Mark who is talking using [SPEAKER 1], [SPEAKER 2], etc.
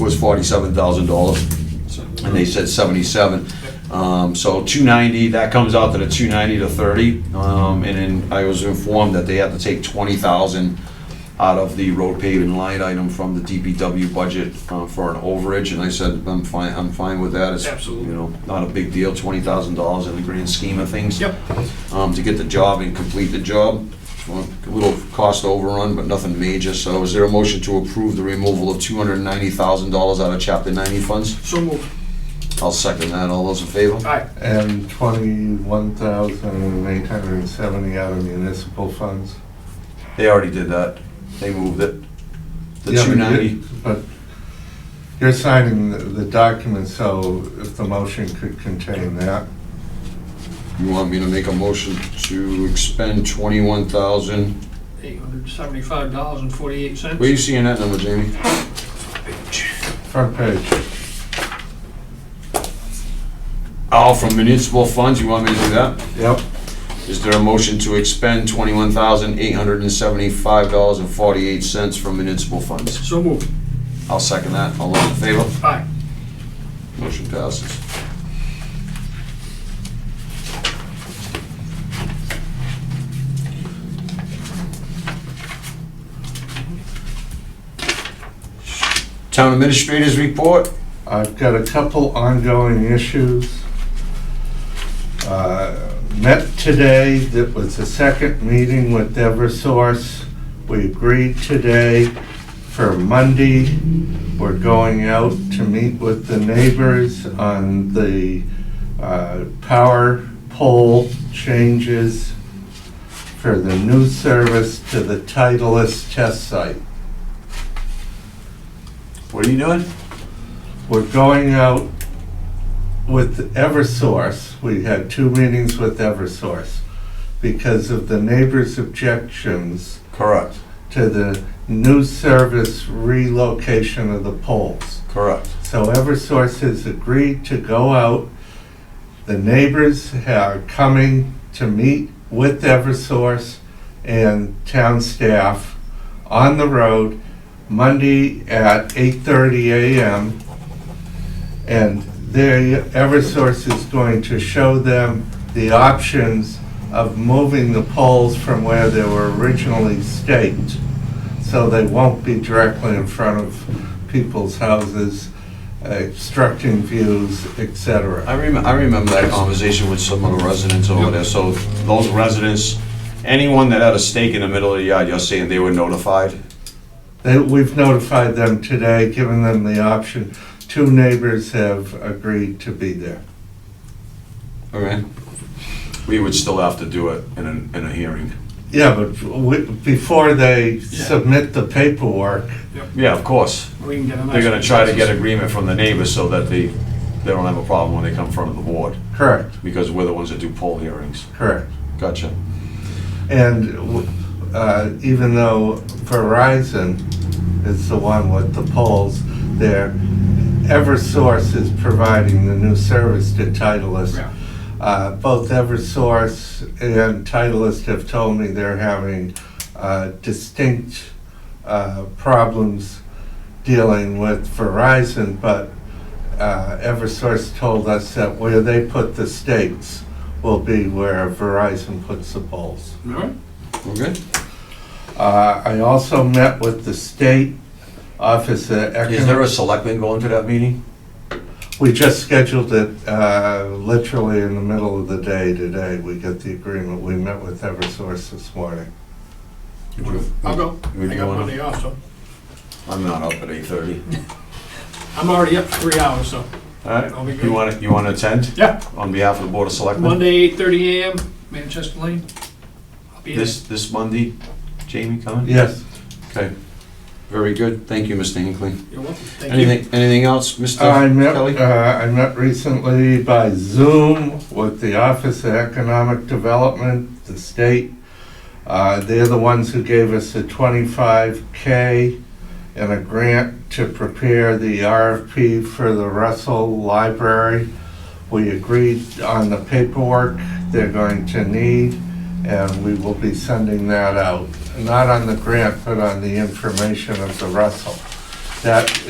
[SPEAKER 1] was forty-seven thousand dollars, and they said seventy-seven. Um, so two ninety, that comes out to the two ninety to thirty, um, and then I was informed that they had to take twenty thousand out of the road paving line item from the DPW budget uh, for an overage, and I said, I'm fine, I'm fine with that. It's,
[SPEAKER 2] Absolutely.
[SPEAKER 1] You know, not a big deal, twenty thousand dollars in the grand scheme of things
[SPEAKER 2] Yep.
[SPEAKER 1] um, to get the job and complete the job. Well, A little cost overrun, but nothing major, so is there a motion to approve the removal of two hundred and ninety thousand dollars out of chapter ninety funds?
[SPEAKER 2] So move.
[SPEAKER 1] I'll second that, all those in favor?
[SPEAKER 2] Aye.
[SPEAKER 3] And twenty-one thousand eight hundred and seventy out of municipal funds.
[SPEAKER 1] They already did that, they moved it. The
[SPEAKER 3] Yeah, but
[SPEAKER 1] two
[SPEAKER 3] you-
[SPEAKER 1] ninety,
[SPEAKER 3] But you're signing the- the document, so if the motion could contain that.
[SPEAKER 1] you want me to make a motion to expend twenty-one thousand?
[SPEAKER 2] Eight hundred seventy-five dollars and forty-eight cents.
[SPEAKER 1] Where you seeing that number, Jamie?
[SPEAKER 3] Front page.
[SPEAKER 1] Oh, from municipal funds, you want me to do that?
[SPEAKER 3] Yep.
[SPEAKER 1] Is there a motion to expend twenty-one thousand eight hundred and seventy-five dollars and forty-eight cents from municipal funds?
[SPEAKER 2] So move.
[SPEAKER 1] I'll second that, all those in favor?
[SPEAKER 2] Aye.
[SPEAKER 1] Motion passes. Town Administrator's Report?
[SPEAKER 3] I've got a couple ongoing issues. Uh, Met today, that was the second meeting with Eversource. We agreed today for Monday, we're going out to meet with the neighbors on the uh, power pole changes for the new service to the Titleist test site.
[SPEAKER 1] What are you doing?
[SPEAKER 3] we're going out with Eversource. We had two meetings with Eversource because of the neighbors' objections
[SPEAKER 1] Correct,
[SPEAKER 3] to the new service relocation of the poles.
[SPEAKER 1] correct.
[SPEAKER 3] So Eversource has agreed to go out. The neighbors are coming to meet with Eversource and town staff on the road Monday at 8:30 a.m. And there, Eversource is going to show them the options of moving the poles from where they were originally staked, so they won't be directly in front of people's houses, uh, obstructing views, etc.
[SPEAKER 1] I remember, I remember that conversation with some of the residents over there, so those residents, anyone that had a stake in the middle of the yard, you're saying they were notified?
[SPEAKER 3] They, Uh, we've notified them today, given them the option. Two neighbors have agreed to be there.
[SPEAKER 1] Okay. We would still have to do it in a, in a hearing.
[SPEAKER 3] Yeah, but we, before they
[SPEAKER 1] Yeah.
[SPEAKER 3] submit the paperwork,
[SPEAKER 1] Yeah, of course.
[SPEAKER 2] We can get a nice.
[SPEAKER 1] They're gonna try to get agreement from the neighbors so that they, they don't have a problem when they come in front of the board,
[SPEAKER 3] correct,
[SPEAKER 1] because we're the ones that do poll hearings.
[SPEAKER 3] correct.
[SPEAKER 1] Gotcha.
[SPEAKER 3] And w- uh, even though Verizon is the one with the polls, their Eversource is providing the new service to Titleist.
[SPEAKER 2] Yeah.
[SPEAKER 3] Uh, Both Eversource and Titleist have told me they're having uh, distinct uh, problems dealing with Verizon, but uh, Eversource told us that where they put the stakes will be where Verizon puts the poles.
[SPEAKER 2] All right.
[SPEAKER 1] Okay.
[SPEAKER 3] Uh, I also met with the state office of
[SPEAKER 1] Is there
[SPEAKER 3] economic.
[SPEAKER 1] a selectman going to that meeting?
[SPEAKER 3] We just scheduled it uh, literally in the middle of the day today. We got the agreement. We met with Eversource this morning.
[SPEAKER 2] I'll go.
[SPEAKER 1] Would
[SPEAKER 2] I
[SPEAKER 1] you
[SPEAKER 2] got
[SPEAKER 1] wanna-
[SPEAKER 2] Monday off, so.
[SPEAKER 1] I'm not up at eight thirty.
[SPEAKER 2] I'm already up for three hours, so. I'll be
[SPEAKER 1] Alright,
[SPEAKER 2] good.
[SPEAKER 1] Uh, you wanna, you wanna attend?
[SPEAKER 2] Yeah.
[SPEAKER 1] On behalf of the Board of Selectmen?
[SPEAKER 2] Monday, eight thirty AM, Manchester Lane. I'll be there.
[SPEAKER 1] This, this Monday, Jamie coming?
[SPEAKER 3] Yes.
[SPEAKER 1] Okay. Very good, thank you, Mr. Hinckley.
[SPEAKER 2] You're welcome. Thank you.
[SPEAKER 1] Anything, anything else, Mr.
[SPEAKER 3] I met,
[SPEAKER 1] Kelly?
[SPEAKER 3] uh, I met recently by Zoom with the Office of Economic Development, the state. Uh, They're the ones who gave us the 25K and a grant to prepare the RFP for the Russell Library. We agreed on the paperwork they're going to need, and we will be sending that out. Not on the grant, but on the information of the Russell. That